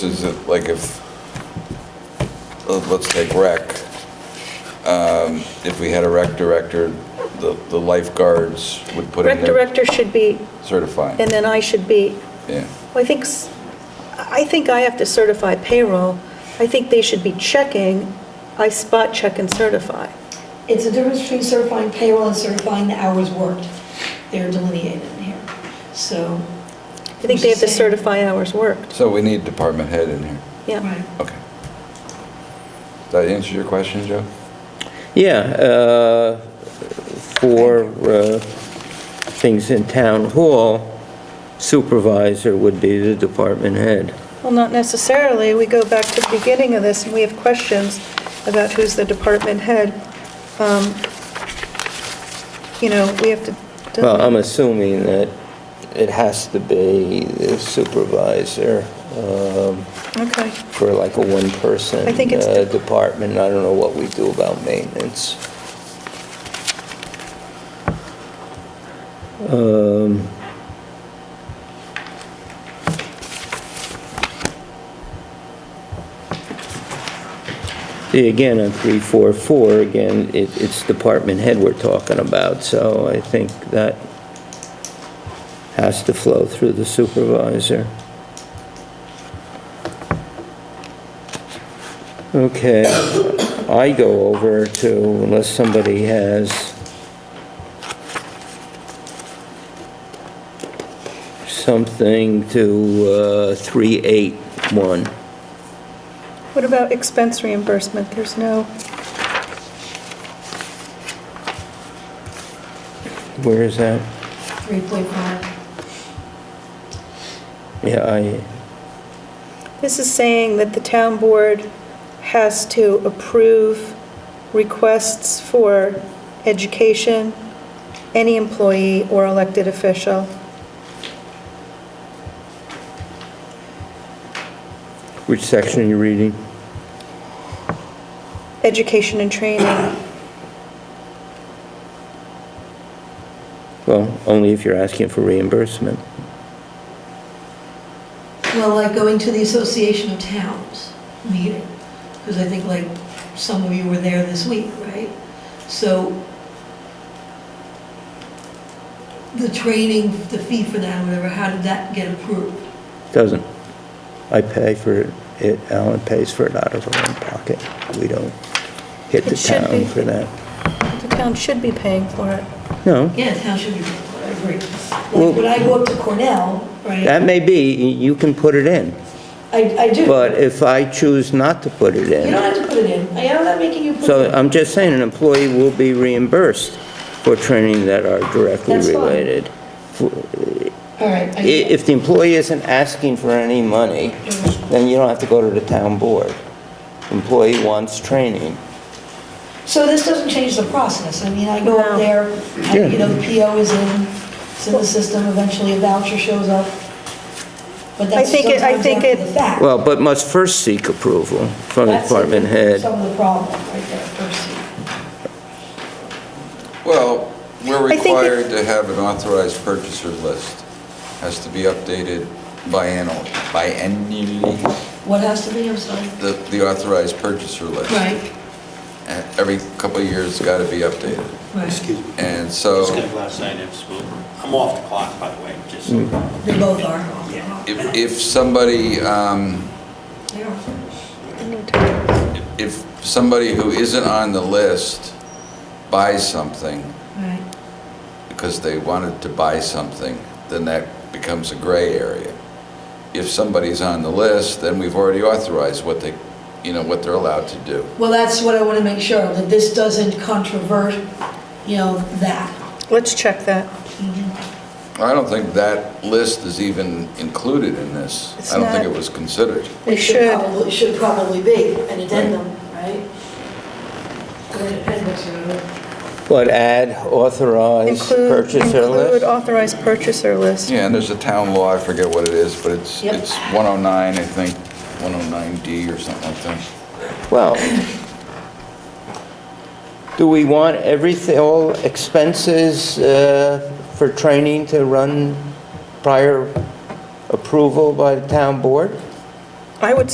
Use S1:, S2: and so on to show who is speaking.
S1: Is it like if, let- let's take rec, um, if we had a rec director, the the lifeguards would put in
S2: Rec
S1: their
S2: director should be,
S1: certifying,
S2: and then I should be,
S1: yeah.
S2: well, I think, s- I think I have to certify payroll. I think they should be checking, I spot check and certify.
S3: It's a difference between certifying payroll and certifying the hours worked. They're delineated in here. So,
S2: I think they have to
S3: Same.
S2: certify hours worked,
S1: So we need department head in here.
S2: yeah.
S3: right.
S1: Okay. Does that answer your question, Joe?
S4: Yeah, uh, for uh, things in town hall, supervisor would be the department head.
S2: Well, not necessarily, we go back to the beginning of this, and we have questions about who's the department head. Um, You know, we have to.
S4: Well, I'm assuming that it has to be the supervisor um,
S2: Okay,
S4: for like a one-person
S2: I think it's
S4: uh,
S2: de-
S4: department. I don't know what we do about maintenance. Um, See, again, on 344, again, it, it's department head we're talking about, so I think that has to flow through the supervisor. Okay, I go over to, unless somebody has something to uh, 381.
S2: what about expense reimbursement? There's no,
S4: Where is that?
S3: 3.5.
S4: Yeah, I,
S2: This is saying that the town board has to approve requests for education, any employee or elected official.
S4: which section are you reading?
S2: Education and training,
S4: Well, only if you're asking for reimbursement.
S3: Well, like going to the Association of Towns meeting, because I think like some of you were there this week, right? So the training, the fee for that, whatever, how did that get approved?
S4: Doesn't. I pay for it, Alan pays for it out of her own pocket. We don't hit the
S2: It should be.
S4: town for that.
S2: the town should be paying for it.
S4: No,
S3: Yeah, town should be, paying for it, I agree.
S4: Well-
S3: Like when I go up to Cornell, right,
S4: Mm. that may be, you can put it in.
S3: I, I do.
S4: But if I choose not to put it
S3: You don't
S4: in,
S3: have to put it in. I am not making you put it
S4: so um,
S3: in.
S4: I'm just saying, an employee will be reimbursed for training that are directly
S3: That's fine.
S4: related.
S3: All right.
S4: I-
S3: I-
S4: If the employee isn't asking for any money, then you don't have to go to the town board. Employee wants training.
S3: So this doesn't change the process. I mean, I go up
S2: No.
S3: there, I-
S4: Yeah.
S3: you know, the PO is in, it's in the system, eventually a voucher shows up. But that's
S2: think it- I
S3: sometimes
S2: think
S3: after
S2: it-
S3: the fact.
S4: Well, but must first seek approval from the
S3: That's
S4: department head.
S3: Some of the problem right there, first.
S1: Well, we're
S2: I think it-
S1: required to have an authorized purchaser list. Has to be updated biannually, biannually,
S3: What has to be, I'm sorry?
S1: the the authorized purchaser list.
S3: Right,
S1: And Every couple of years, it's got to be updated.
S3: right.
S5: Excuse me.
S1: And
S5: Just
S1: so
S5: got a glass eye at school. I'm off the clock, by the way, just. Well,
S3: They both are.
S1: if, if somebody, um,
S3: They are.
S1: if somebody who isn't on the list buys something
S3: Right.
S1: because they wanted to buy something, then that becomes a gray area. If somebody's on the list, then we've already authorized what they, you know, what they're allowed to do.
S3: Well, that's what I want to make sure, of, that this doesn't controvert, you know, that.
S2: Let's check that.
S1: I don't think that list is even included in this.
S2: It's
S1: I don't think
S2: not.
S1: it was considered.
S2: We
S3: It
S2: should.
S3: probably- It should probably be an addendum, right? Or an appendix, or whatever.
S4: But add authorized
S2: Include,
S4: purchaser
S2: include
S4: list?
S2: authorized purchaser list.
S1: Yeah, and there's a town law, I forget what it is, but it's,
S3: Yep.
S1: it's 109, I think, 109D or something like that.
S4: Well, do we want everything, all expenses uh, for training to run prior approval by the town board?
S2: I would